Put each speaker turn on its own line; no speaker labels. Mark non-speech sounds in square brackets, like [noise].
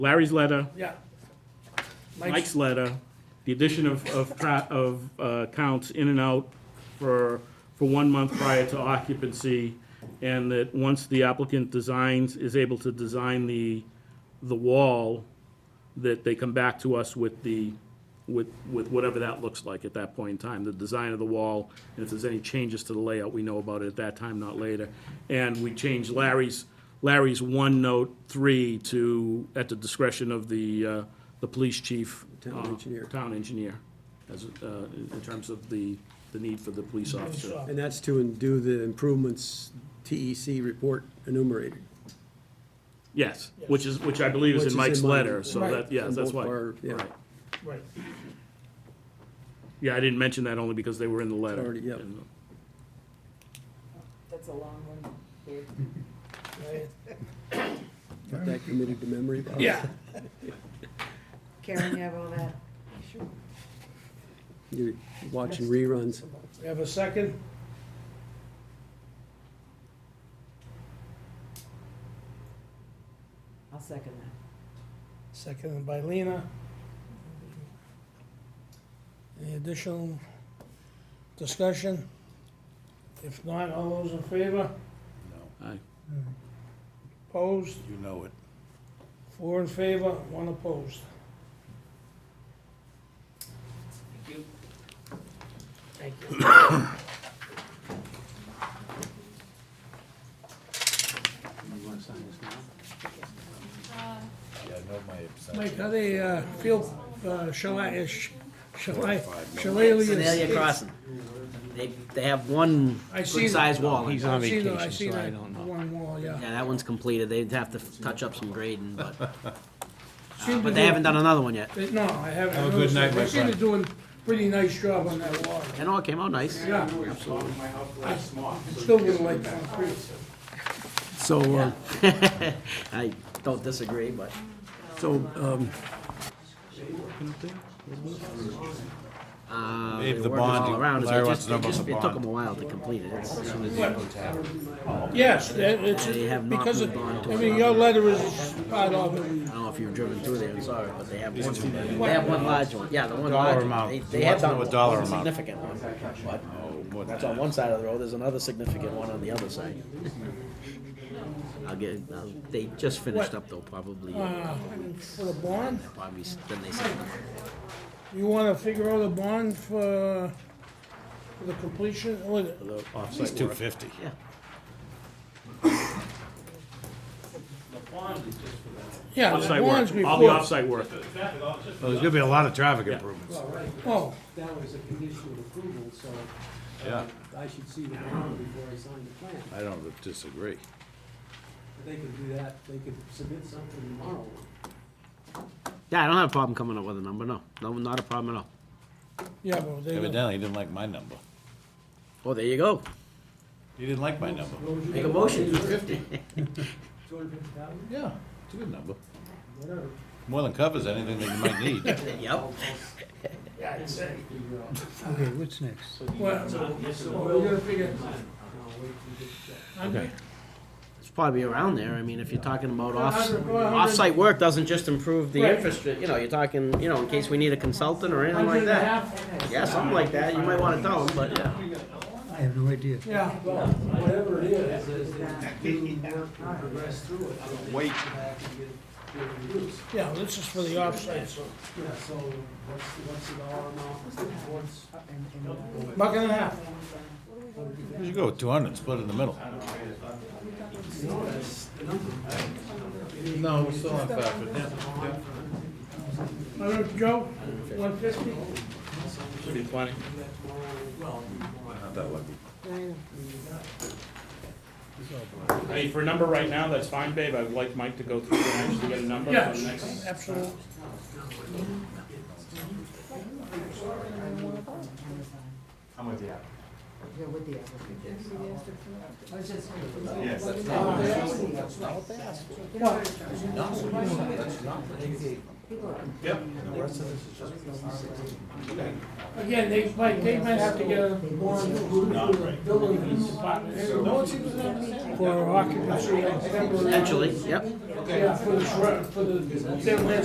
Larry's letter,
Yeah.
Mike's letter, the addition of, of, pro- of uh, counts in and out for, for one month prior to occupancy, and that once the applicant designs, is able to design the, the wall, that they come back to us with the, with, with whatever that looks like at that point in time, the design of the wall, and if there's any changes to the layout, we know about it at that time, not later. And we change Larry's, Larry's one note three to, at the discretion of the, uh, the police chief.
Town
uh,
engineer.
Town engineer, as, uh, in in terms of the, the need for the police officer.
And that's to do the improvements TEC report enumerated.
Yes, which is, which I believe is
Which
in
is
Mike's
in mine.
letter, so
Right.
that, yeah,
On
that's
both
why.
our- yeah.
Right.
Right.
Yeah, I didn't mention that only because they were in the letter.
already- yep.
And-
That's a long one, Dave.
right.
Got that committed to memory.
uh,
Bob?
Yeah.
Karen, you have all that? Sure.
You're watching reruns.
We have a second?
I'll second that.
Seconded by Lena. Any additional discussion? If not, all those in favor?
Aye.
Opposed?
You know it.
Four in favor, one opposed. Thank you. Thank you.
Yeah, I know my abstention.
Mike, how they, uh, feel, uh, chalet, chalet, chalet.
Sedalia Crossing. They, they have one
I
good
see
size
that. Oh,
wall.
He's
Yeah,
on
I've seen the-
vacation,
I've seen
so I
that
don't know.
One wall, yeah.
that one's completed. They'd have to touch up some grading, but,
[laughs] Seem to
but
do-
they haven't done another one yet.
they- No, I haven't.
Have a good
noticed
night,
that.
my
They seem to
friend.
doing a pretty nice job on that wall.
And all came out nice.
Yeah, absolutely. I Still wouldn't like concrete.
So, uh,
[laughs] I don't disagree, but
so, um,
uh,
Dave,
they
the
work it all
bond,
around. It's
Larry
just-
wants to know
it
about
just-
the
It took
bond.
them a while to complete it. It's- as soon as-
Yes, that- it's,
They have not
because, it-
moved on to
I mean, your letter is part of it.
I don't know if you've driven through there and saw it, but they have one, they have one large one. Yeah, the one large one.
amount.
They-
He
They
wants
have
to know
done
a
one
dollar
It's a
amount.
significant one. but
Oh, More than
That's on one side of the road, there's another significant one on the other side. I'll get, uh, they just finished up though, probably,
Uh, For the bond,
probably, s- then they said,
you wanna figure out a bond for, for the completion, what,
that. At least two fifty.
yeah.
yeah, the
Offsite
bonds
work,
before.
all the offsite work.
Well, there's gonna be a lot of traffic improvements.
Oh,
that was a condition of approval, so
Yeah,
I should see the plan before I sign the plan.
I don't disagree.
They could do that, they could submit something tomorrow.
Yeah, I don't have a problem coming up with a number, no, no, not a problem at all.
yeah, but they, don't-
Evidently, he didn't like my number.
Oh, there you go,
He didn't like my number.
make a motion, two fifty.
Two hundred fifty thousand,
Yeah, it's a good number.
whatever.
More than covers anything that you might [laughs] need.
[laughs] Yep,
Okay, what's next?
well, well, we gotta figure. Okay.
it's probably around there, I mean, if you're talking about
Well,
off,
hundred- well, hundred-
off-site work doesn't just improve the
Right.
infrastructure, you know, you're talking, you know, in case we need a consultant or anything
Hundred and
like
a
that.
half,
Yeah, something like that, you might wanna tell them, but yeah.
I have no idea.
yeah.
Whatever it is, is that do work and progress through it. so they
Wait.
come back and get- get reviews.
Yeah, this is for the offsite, so,
Yeah, so what's, what's the dollar amount, what's the what's-
buck and a half.
You go two hundred, split it in the middle.
No, that's the number.
No, we're still on five, but
Hundred, Joe, one fifty?
I mean, for a number right now, that's fine, babe. I would like Mike to go through and actually get a number for the
Yes,
next.
absolutely.
I'm with you.
You're with the applicant. I was just.
Yes, that's
Oh,
not-
that's the applicant.
That's not what they asked for.
No,
No, that's not what they gave.
people are-
Yep. And the rest of this is just. Okay.
Again, they might, they might have to get a warrant approved through the building department
No one seems to understand.
for occupancy. of temporary-
Potentially, yep.
Yeah, for the, shrub- for the, their